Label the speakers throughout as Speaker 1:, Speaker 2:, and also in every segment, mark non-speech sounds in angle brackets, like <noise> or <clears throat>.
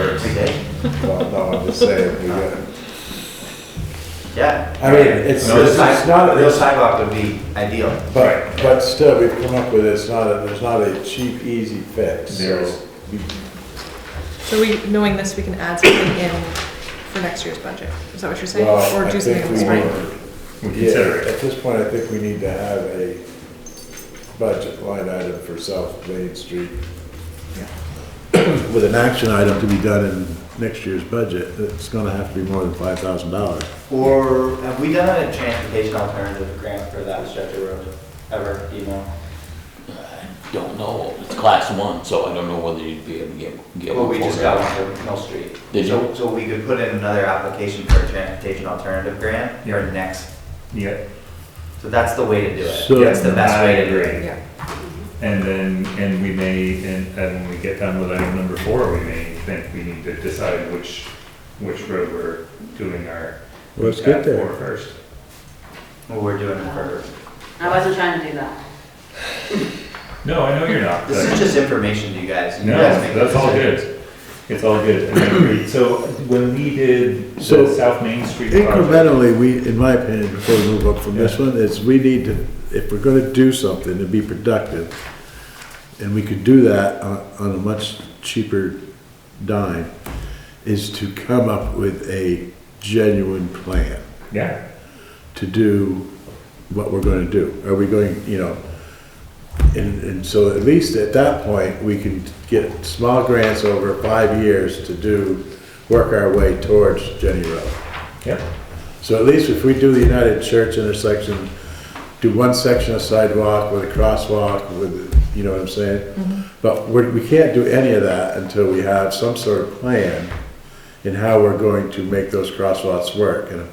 Speaker 1: every day.
Speaker 2: Well, no, I'm just saying, we got,
Speaker 1: Yeah.
Speaker 2: I mean, it's,
Speaker 1: No,
Speaker 2: it's it's not,
Speaker 1: Real
Speaker 2: it's-
Speaker 1: sidewalk would be ideal.
Speaker 2: but, but still, we've come up with, it's not, a- there's not a cheap, easy fix. so-
Speaker 3: There's-
Speaker 4: So we, knowing this, we can add something in for next year's budget. Is that what you're saying?
Speaker 2: Well,
Speaker 4: Or
Speaker 2: I
Speaker 4: do
Speaker 2: think
Speaker 4: something in the
Speaker 2: we
Speaker 4: spring?
Speaker 2: were-
Speaker 3: We
Speaker 2: Yeah,
Speaker 3: consider it.
Speaker 2: at this point, I think we need to have a budget line item for South Main Street. With an action item to be done in next year's budget, it's gonna have to be more than five thousand dollars.
Speaker 1: Or have we done a transportation alternative grant for that stretch of road ever, do you know?
Speaker 5: I don't know, it's class one, so I don't know whether you'd be able to get, get
Speaker 1: Well,
Speaker 5: one
Speaker 1: we
Speaker 5: for
Speaker 1: just
Speaker 5: it.
Speaker 1: got one for Mill Street.
Speaker 5: Did
Speaker 1: So-
Speaker 5: you?
Speaker 1: So we could put in another application for a transportation alternative grant or next.
Speaker 3: Yeah,
Speaker 1: So that's the way to do it.
Speaker 2: So-
Speaker 1: That's the best way to do it.
Speaker 3: agree.
Speaker 4: Yeah.
Speaker 3: And then, and we may, and, and when we get done with item number four, we may think we need to decide which, which road we're doing our.
Speaker 2: Let's get
Speaker 3: tap
Speaker 2: there.
Speaker 3: for First.
Speaker 1: Well, We're doing it for,
Speaker 6: I wasn't trying to do that.
Speaker 3: No, I know you're not.
Speaker 1: this
Speaker 3: but-
Speaker 1: is just information to you guys. You
Speaker 3: No,
Speaker 1: guys make the
Speaker 3: that's all
Speaker 1: decision.
Speaker 3: good. It's all good. And I agree. So when we did
Speaker 2: So,
Speaker 3: the South Main Street project,
Speaker 2: Incrementally, we, in my opinion, before we move up from this one, is we need to, if we're gonna do something to be productive, and we could do that on, on a much cheaper dime, is to come up with a genuine plan
Speaker 3: yeah,
Speaker 2: to do what we're gonna do. Are we going, you know, and, and so at least at that point, we can get small grants over five years to do, work our way towards Jenny Road.
Speaker 3: yep,
Speaker 2: So at least if we do the United Church intersection, do one section of sidewalk with a crosswalk with, you know what I'm saying? But we're, we can't do any of that until we have some sort of plan in how we're going to make those crosswalks work and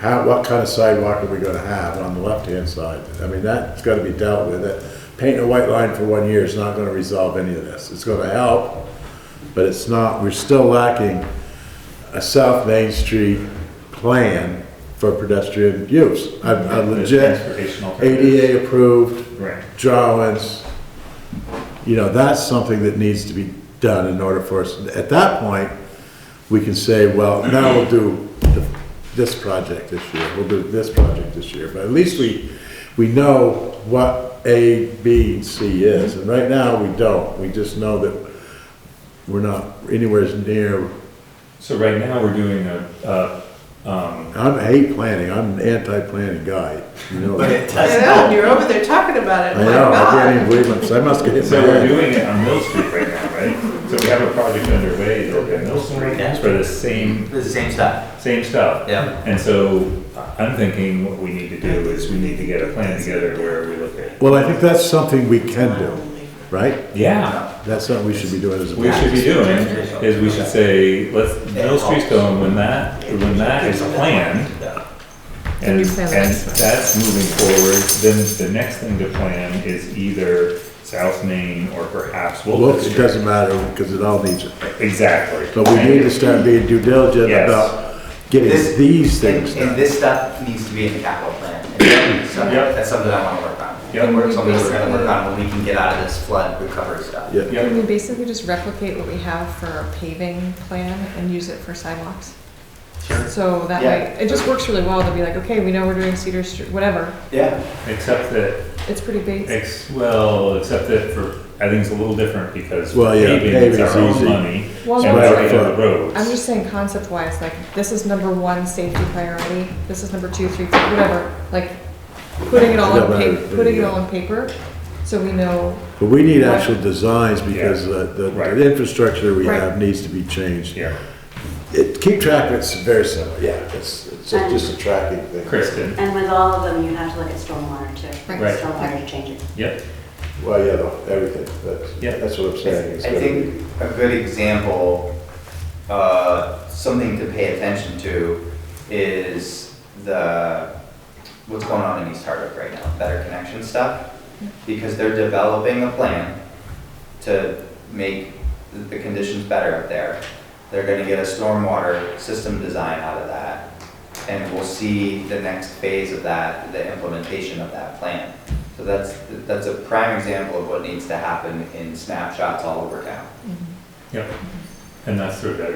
Speaker 2: how, what kind of sidewalk are we gonna have on the left-hand side? I mean, that's gotta be dealt with. That- Painting a white line for one year is not gonna resolve any of this. It's gonna help, but it's not, we're still lacking a South Main Street plan for pedestrian use. A a legit
Speaker 3: transportation alternatives.
Speaker 2: ADA approved
Speaker 3: Right.
Speaker 2: drawings. You know, that's something that needs to be done in order for us, at that point, we can say, well, now we'll do the- this project this year, we'll do this project this year. But at least we, we know what A, B, and C is, and right now, we don't. We just know that we're not anywhere near
Speaker 3: So right now, we're doing a, a, um,
Speaker 2: I'm I hate planning. I'm an anti-planning guy. You know
Speaker 1: But
Speaker 2: that.
Speaker 1: it
Speaker 4: I
Speaker 1: does
Speaker 4: know,
Speaker 1: help.
Speaker 4: and you're over there talking about it.
Speaker 2: I
Speaker 4: My
Speaker 2: know. I can't
Speaker 4: God.
Speaker 2: even believe it. So I must get hit in
Speaker 3: So
Speaker 2: the
Speaker 3: we're
Speaker 2: head.
Speaker 3: doing it on Mill Street right now, right? So we have a project underway to open Mill Street
Speaker 1: Yeah.
Speaker 3: for the same,
Speaker 1: It's the same stuff.
Speaker 3: same stuff.
Speaker 1: Yeah.
Speaker 3: And so I'm thinking what we need to do is we need to get a plan together where we look at.
Speaker 2: Well, I think that's something we can do, right?
Speaker 3: Yeah.
Speaker 2: That's something we should be doing as a.
Speaker 3: We
Speaker 2: board.
Speaker 3: should be doing is we should say, let's, Mill Street's going, when that, when that is planned,
Speaker 4: Then
Speaker 3: and,
Speaker 4: we
Speaker 3: and
Speaker 4: plan the next one.
Speaker 3: that's moving forward, then the next thing to plan is either South Main or perhaps
Speaker 2: Well,
Speaker 3: Wilton
Speaker 2: it
Speaker 3: Street.
Speaker 2: doesn't matter because it all needs it.
Speaker 3: Exactly.
Speaker 2: But we need to start being due diligent
Speaker 3: Yes.
Speaker 2: about getting these things
Speaker 1: And, and
Speaker 2: done.
Speaker 1: this stuff needs to be in the capital plan.
Speaker 2: <clears throat>
Speaker 1: And that's something-
Speaker 3: Yep.
Speaker 1: That's something I wanna work on.
Speaker 3: Yep.
Speaker 1: And work, something we're gonna work on when we can get out of this flood recovery stuff.
Speaker 2: Yeah.
Speaker 3: Yep.
Speaker 4: Can we basically just replicate what we have for our paving plan and use it for sidewalks?
Speaker 1: Sure.
Speaker 4: So that way, it just works really well to be like, okay, we know we're doing Cedar Street, whatever.
Speaker 1: Yeah.
Speaker 3: Except that
Speaker 4: It's pretty basic.
Speaker 3: Ex, well, except that for, I think it's a little different because
Speaker 2: Well, yeah,
Speaker 3: paving is
Speaker 2: paving's
Speaker 3: our own
Speaker 2: easy.
Speaker 3: money.
Speaker 4: Well,
Speaker 3: And
Speaker 4: no,
Speaker 3: it's
Speaker 2: Right
Speaker 3: right
Speaker 2: foot.
Speaker 3: on the roads.
Speaker 4: I'm just saying concept wise, like, this is number one safety priority, this is number two, three, four, whatever, like, putting it all on
Speaker 2: Yeah, but
Speaker 4: pa,
Speaker 2: I-
Speaker 4: putting it all on paper, so we know,
Speaker 2: But we need actual designs because the, the-
Speaker 3: Right.
Speaker 2: the infrastructure we
Speaker 4: Right.
Speaker 2: have needs to be changed.
Speaker 3: Yeah,
Speaker 2: It, keep track of it's very simple. Yeah, it's, it's just a tracking thing.
Speaker 3: Kristen,
Speaker 6: And with all of them, you have to look at stormwater too.
Speaker 4: Right.
Speaker 3: Right.
Speaker 6: Stormwater to change it.
Speaker 3: yep,
Speaker 2: Well, yeah, no, everything.
Speaker 3: Yeah.
Speaker 2: That's, that's what I'm
Speaker 1: I
Speaker 2: saying. It's
Speaker 1: I
Speaker 2: gotta be-
Speaker 1: think a good example, uh, something to pay attention to is the, what's going on in East Hardwick right now, Better Connection stuff. Because they're developing a plan to make the- the conditions better up there. They're gonna get a stormwater system design out of that. And we'll see the next phase of that, the implementation of that plan. So that's, that's a prime example of what needs to happen in snapshots all over town.
Speaker 3: yep. And that's sort of